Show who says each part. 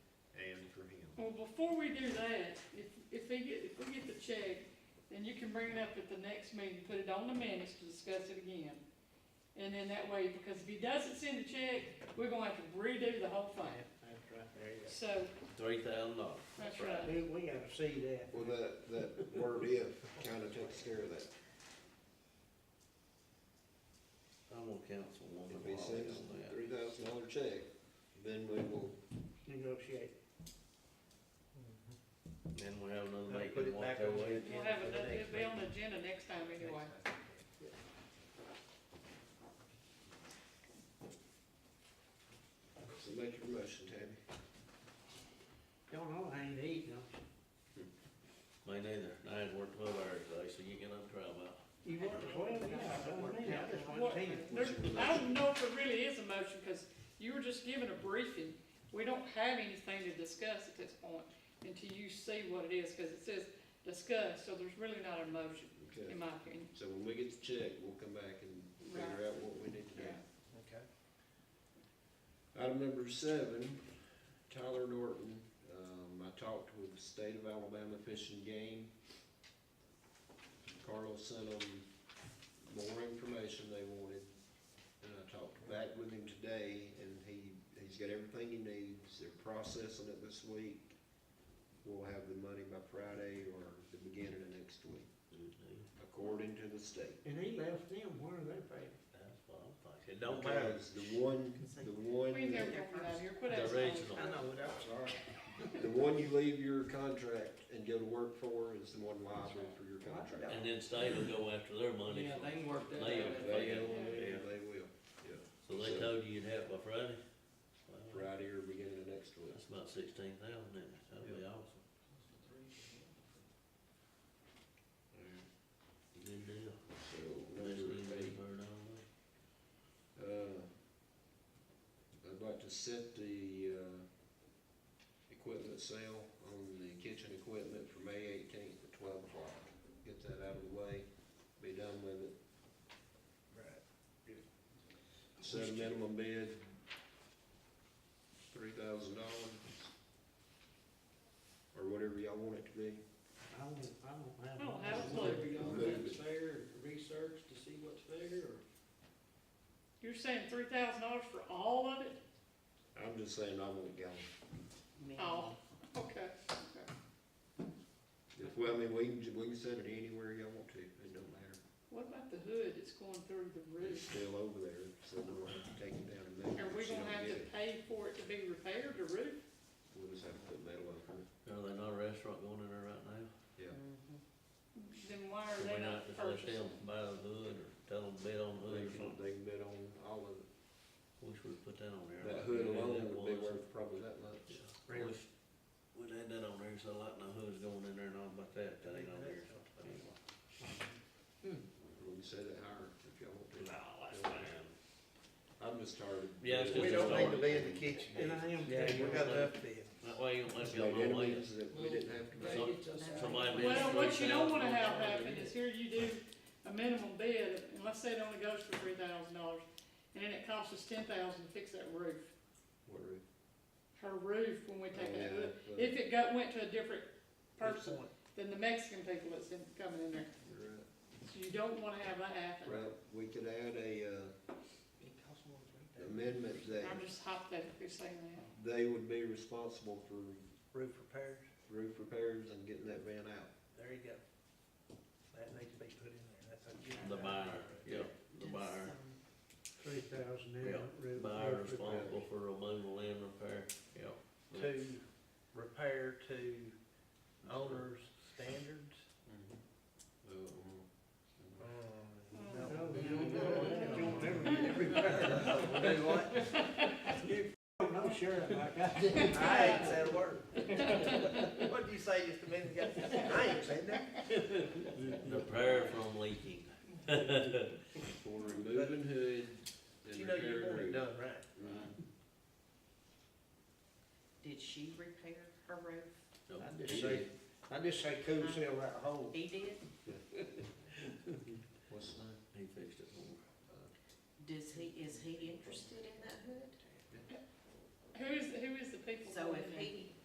Speaker 1: Well, before we do that, if, if they get, if we get the check, then you can bring it up at the next meeting, put it on the minutes to discuss it again. And then that way, because if he doesn't send the check, we're gonna have to redo the whole thing.
Speaker 2: That's right, there you
Speaker 1: So,
Speaker 3: Three thousand dollars.
Speaker 1: that's right.
Speaker 2: go. We, we gotta see that.
Speaker 4: Well, that, that word if kind of takes care of that.
Speaker 3: I'm on councilwoman
Speaker 4: If
Speaker 3: Wiley
Speaker 4: he sends
Speaker 3: on
Speaker 4: a
Speaker 3: that.
Speaker 4: three thousand dollar check, then we will,
Speaker 2: Negotiate.
Speaker 3: Then we have another
Speaker 2: Now
Speaker 3: make
Speaker 2: put
Speaker 3: and
Speaker 2: it
Speaker 3: walk
Speaker 2: back
Speaker 3: their
Speaker 2: on the
Speaker 3: way.
Speaker 2: agenda
Speaker 1: We'll have
Speaker 2: for
Speaker 1: it,
Speaker 2: the
Speaker 1: it'll
Speaker 2: next
Speaker 1: be
Speaker 2: meeting.
Speaker 1: on the agenda next time anyway.
Speaker 4: so make your motion, Tammy.
Speaker 2: Don't know, I ain't eating, don't
Speaker 3: Me neither, and I ain't worked twelve hours today, so you get up trial about.
Speaker 2: you? You work twelve, yeah, I don't mean, I just
Speaker 1: What-
Speaker 2: want ten.
Speaker 1: there- I don't know if it really is a motion, because you were just given a briefing. We don't have anything to discuss at this point until you see what it is, because it says discuss, so there's really not a motion,
Speaker 4: Okay,
Speaker 1: in my opinion.
Speaker 4: so when we get the check, we'll come back and figure out what we need to do.
Speaker 2: Okay.
Speaker 4: Item number seven, Tyler Norton, um, I talked with the State of Alabama Fish and Game. Carl sent them more information they wanted, and I talked back with him today, and he, he's got everything he needs, they're processing it this week. We'll have the money by Friday or the beginning of next week, according to the state.
Speaker 2: And he left them, where are they paid?
Speaker 3: That's what I'm thinking. It don't matter,
Speaker 4: Because the one, the one.
Speaker 1: We never
Speaker 4: that-
Speaker 1: gonna come out here, quit
Speaker 3: the
Speaker 1: asking.
Speaker 3: original.
Speaker 2: I know, but I'm sorry.
Speaker 4: The one you leave your contract and go to work for is the one liable for your contract.
Speaker 3: And then state will go after their money.
Speaker 5: Yeah,
Speaker 3: for-
Speaker 5: they worked that
Speaker 3: They-
Speaker 5: out.
Speaker 4: If they own it, they will, yeah,
Speaker 3: So they told you you'd have it by Friday? Well,
Speaker 4: Friday or beginning of next week.
Speaker 3: That's about sixteen thousand, isn't it? That'd be awesome. Good deal.
Speaker 4: So,
Speaker 3: That's
Speaker 4: number
Speaker 3: good
Speaker 4: eight,
Speaker 3: for it all.
Speaker 4: uh, I'd like to set the, uh, equipment sale on the kitchen equipment for May eighteenth at twelve o'clock. Get that out of the way, be done with it. Set a minimum bid, three thousand dollars, or whatever y'all want it to be.
Speaker 2: I don't, I don't have.
Speaker 1: I don't
Speaker 2: one.
Speaker 1: have a clue.
Speaker 5: Whatever y'all think's fair, and research to see what's fair, or?
Speaker 1: You're saying three thousand dollars for all of it?
Speaker 4: I'm just saying I want it gone.
Speaker 1: Oh, okay.
Speaker 4: If, well, I mean, we can, we can set it anywhere y'all want to, it don't matter.
Speaker 1: What about the hood that's going through the
Speaker 4: It's
Speaker 1: roof?
Speaker 4: still over there, so we'll have to take it down and move it.
Speaker 1: Are we
Speaker 4: if you
Speaker 1: gonna
Speaker 4: don't
Speaker 1: have
Speaker 4: get
Speaker 1: to
Speaker 4: it.
Speaker 1: pay for it to be repaired, the roof?
Speaker 4: We'll just have to put metal over it.
Speaker 3: Are there not a restaurant going in there right now?
Speaker 1: Then why are
Speaker 3: Can
Speaker 1: they
Speaker 3: we
Speaker 1: not
Speaker 3: just let
Speaker 1: first?
Speaker 3: them buy the hood or tell them bid on the hood
Speaker 4: They
Speaker 3: or
Speaker 4: can,
Speaker 3: something?
Speaker 4: they can bet on all of it.
Speaker 3: Wish we'd put that on there. like
Speaker 4: That hood
Speaker 3: we did
Speaker 4: alone
Speaker 3: that
Speaker 4: would be
Speaker 3: once.
Speaker 4: worth probably that much.
Speaker 3: Yeah. Wish we'd had that on there, so like no hood's going in there and all about that, that ain't on there. Anyway.
Speaker 4: We can set it higher if y'all want to.
Speaker 3: No, that's fine.
Speaker 4: I'm just tired. of-
Speaker 3: Yeah, it's just
Speaker 6: We don't need to
Speaker 3: start.
Speaker 6: be in the kitchen.
Speaker 2: And I am,
Speaker 3: Yeah,
Speaker 2: we
Speaker 3: you
Speaker 2: got
Speaker 3: don't-
Speaker 2: to up there.
Speaker 3: That way you don't let
Speaker 4: It's
Speaker 3: it go
Speaker 4: made
Speaker 3: no way.
Speaker 4: enemies that we didn't have to make.
Speaker 3: So-
Speaker 5: Make it to us.
Speaker 3: Somebody bids
Speaker 1: Well, what you don't wanna have
Speaker 3: $3,000
Speaker 1: happen is here you do a minimum bid, and let's say it only goes for three thousand dollars, and then it costs us ten thousand to fix that roof.
Speaker 4: What are we-
Speaker 1: Her roof, when we take that hood,
Speaker 4: Yeah, but-
Speaker 1: if it got, went to a different person
Speaker 2: Good point.
Speaker 1: than the Mexican people that's in, coming in there,
Speaker 4: You're right.
Speaker 1: so you don't wanna have that happen.
Speaker 4: Right, we could add a, uh,
Speaker 2: It costs more than three thousand.
Speaker 4: amendment that
Speaker 1: I'm just hypothetically saying that.
Speaker 4: they would be responsible for
Speaker 2: Roof repairs,
Speaker 4: roof repairs and getting that van out.
Speaker 2: there you go. That needs to be put in there, that's a good.
Speaker 3: The buyer, yeah, the buyer.
Speaker 2: Three thousand in
Speaker 3: Yeah,
Speaker 2: roof.
Speaker 3: Buyer
Speaker 2: roof repair.
Speaker 3: responsible for removal and repair, yeah.
Speaker 2: To repair to owner's standards.
Speaker 3: Mm-hmm. Oh.
Speaker 4: Um,
Speaker 2: No,
Speaker 7: um,
Speaker 1: Mm.
Speaker 2: you don't know that. You don't ever get every repair.
Speaker 6: Do what?
Speaker 2: You don't know sheriff like I do.
Speaker 6: I ain't said a word. What did you say just a minute ago? I ain't said that.
Speaker 3: Repair from leaking.
Speaker 4: For removing hood
Speaker 6: But
Speaker 4: and
Speaker 6: You know, you want
Speaker 4: repairing
Speaker 6: it
Speaker 4: roof.
Speaker 6: done right.
Speaker 4: Right.
Speaker 7: Did she repair her roof?
Speaker 3: So,
Speaker 2: I just say, I just say cool seal that hole.
Speaker 7: He did?
Speaker 4: What's the name?
Speaker 3: He fixed it for me.
Speaker 7: Does he, is he interested in that hood?
Speaker 1: Who is, who is the people?
Speaker 7: So
Speaker 1: going
Speaker 7: if
Speaker 1: in?
Speaker 7: he